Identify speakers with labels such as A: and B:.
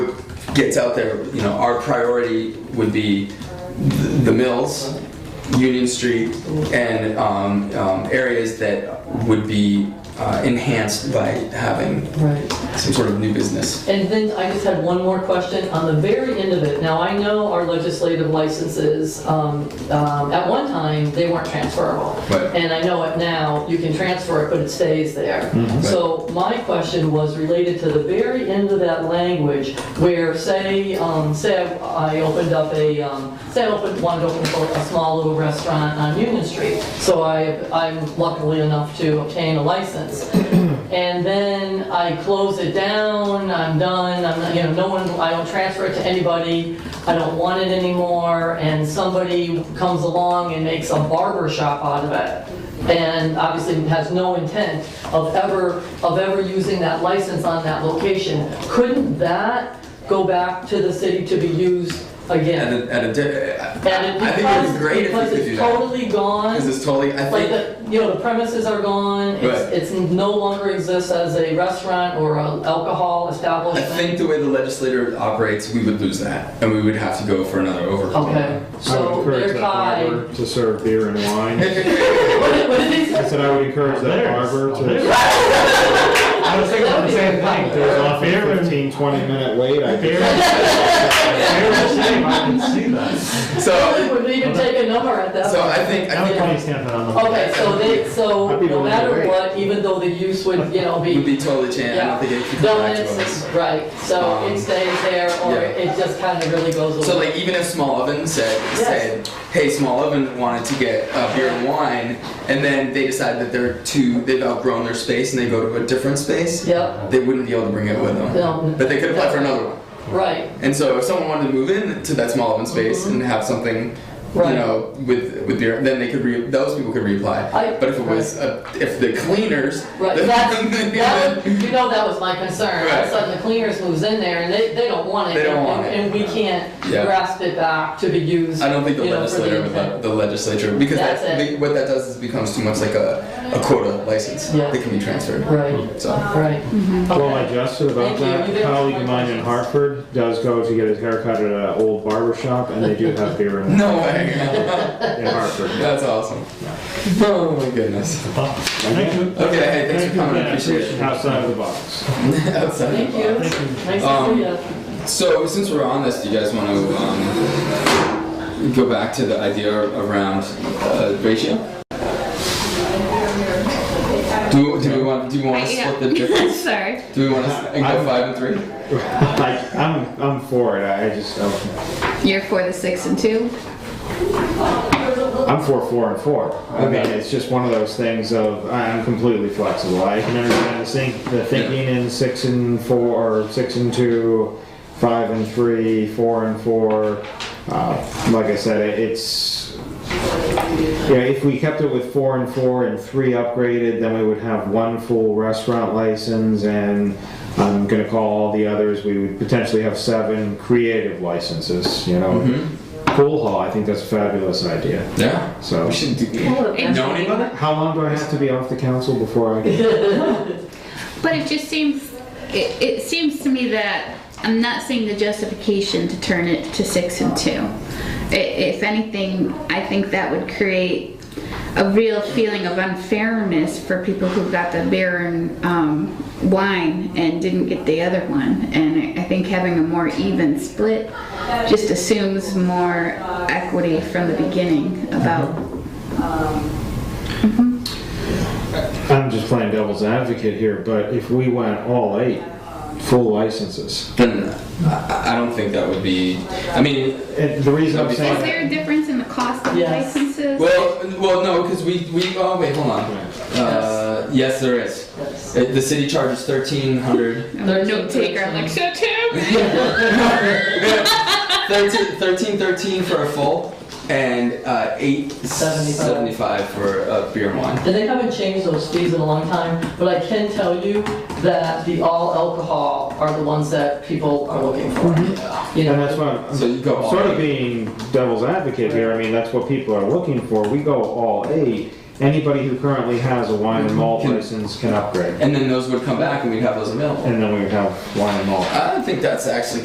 A: gets out there, you know, our priority would be th- the mills, Union Street, and um, um, areas that would be uh, enhanced by having
B: Right.
A: some sort of new business.
B: And then I just had one more question on the very end of it. Now, I know our legislative licenses, um, um, at one time, they weren't transferable.
A: Right.
B: And I know it now, you can transfer it, but it stays there.
A: Right.
B: So my question was related to the very end of that language where say, um, say I opened up a, um, say I opened, wanted to open a small little restaurant on Union Street. So I, I'm luckily enough to obtain a license. And then I close it down, I'm done, I'm, not- you know, no one, I don't transfer it to anybody, I don't want it anymore, and somebody comes along and makes a barber shop out of it, and obviously has no intent of ever, of ever using that license on that location. Couldn't that go back to the city to be used
A: And
B: again?
A: a, and a di-
B: And
A: I think it would be great if we
B: because-
A: could do
B: Because
A: that.
B: it's totally gone.
A: Because it's totally, I
B: Like,
A: think,
B: the you know, the premises are gone,
A: Right.
B: it's, it's no longer exists as a restaurant or a alcohol
A: I
B: establishment.
A: think the way the legislature operates, we would lose that, and we would have to go for another overhaul.
B: Okay,
C: I would
B: so
C: encourage
B: they're
C: that
B: tied.
C: barber to serve beer and wine.
B: What did- what did they say?
C: I said I would encourage that barber to.
D: I was thinking the same
C: There's
D: thing.
C: often a 15, 20 minute wait. I
D: Fair
C: think.
D: fair shame, I can see that.
A: So,
B: Would they even take a number at that?
A: so
B: point?
A: I think, I
D: Now we
A: think
D: can stamp it on the.
B: Okay, so they, so
C: I'd be
B: no
C: willing to
B: matter
C: wait.
B: what, even though the use would, you know,
A: it would
B: be,
A: be totally changed, I don't think it could come
B: no,
A: back to
B: it's,
A: us.
B: right, so
A: Um,
B: it stays there, or
A: yeah.
B: it just kind of really goes away.
A: So like even if Small Oven said said, hey, Small Oven wanted to get uh, beer and wine, and then they decide that they're too they've outgrown their space and they go to a different space,
B: Yep,
A: they wouldn't be able to bring it with them.
B: No.
A: But they could apply for another one.
B: right,
A: And so if someone wanted to move in to that Small Oven space and have something.
B: Mm-hmm. Right.
A: You know, with with beer, then they could re- those people could reapply.
B: I-
A: but if it was uh, if the cleaners,
B: right.
A: then-
B: That's, that,
A: then-
B: was- you know, that was my concern. All of
A: Right.
B: a sudden, the cleaners moves in there, and they, they don't want it.
A: They don't
B: and-
A: want it.
B: And we can't
A: Yeah.
B: grasp it back to be used.
A: I don't think the
B: you know, for
A: legislator would let
B: intent.
A: the legislature because
B: That's
A: that,
B: it.
A: what that does is becomes too much like a, a quota license
B: Yeah.
A: that can be transferred.
B: Right,
A: So
B: right.
C: Well,
B: Okay.
C: I jested about
B: Thank you.
C: that.
B: You
C: A
B: didn't
C: colleague
B: answer
C: of
B: my
C: mine
B: questions.
C: in Hartford does go to get his haircut at an old barber shop, and they do have beer and
A: no way.
C: wine in Hartford.
A: That's awesome. Oh my goodness.
C: Thank you.
A: Okay, hey, thanks for coming. I
C: Yeah,
A: appreciate it.
C: Outside of the box.
A: Outside
B: Thank
A: the box.
B: you. Nice to
A: Um,
B: see you.
A: So since we're on this, do you guys want to um, go back to the idea around uh, ratio? Do, do we want do you want to
E: Yeah.
A: split the difference?
E: Sorry.
A: Do we want to and go five and three?
C: I, I'm, I'm for it. I just, I'm,
E: You're for the six and two?
C: I'm for four and four. I mean, it's just one of those things of I'm completely flexible. I can understand the, think, the thinking in six and four, or six and two, five and three, four and four. Uh, like I said, it, it's you know, if we kept it with four and four and three upgraded, then we would have one full restaurant license and I'm gonna call all the others, we would potentially have seven creative licenses, you know. Pool hall, I think that's a fabulous idea.
A: Yeah.
C: So,
A: We should do. Know anybody?
C: how long do I have to be off the council before I can?
E: But it just seems, it, it seems to me that I'm not seeing the justification to turn it to six and two. I- If anything, I think that would create a real feeling of unfairness for people who got the beer and um, wine and didn't get the other one. And I I think having a more even split just assumes more equity from the beginning about
C: I'm just playing devil's advocate here, but if we went all eight full licenses,
A: Then I, I don't think that would be. I mean,
C: and the reason I'm
E: Is
C: saying,
E: there a difference in the cost of
B: Yes.
E: licenses?
A: well, well, no, because we we. Oh wait, hold on. Uh, yes, there is.
B: Yes.
A: Uh, The city charges thirteen hundred.
E: I'm
B: There's
E: a
B: a
E: note taker, I'm like,
B: difference.
E: so too?
A: Thirteen, thirteen, thirteen for a full, and uh, eight
B: Seventy-five.
A: seventy-five for a beer and wine.
B: And they haven't changed those fees in a long time, but I can tell you that the all alcohol are the ones that people are looking for. You
C: and
B: know,
C: that's why
A: So
C: I'm
A: you go
C: I'm
A: all
C: sort of
A: eight.
C: being devil's advocate here, I mean, that's what people are looking for, we go all eight, anybody who currently has a wine and malt
A: Can-
C: license can upgrade,
A: and then those would come back, and we'd have those available.
C: and then we would have wine and malt.
A: I think that's actually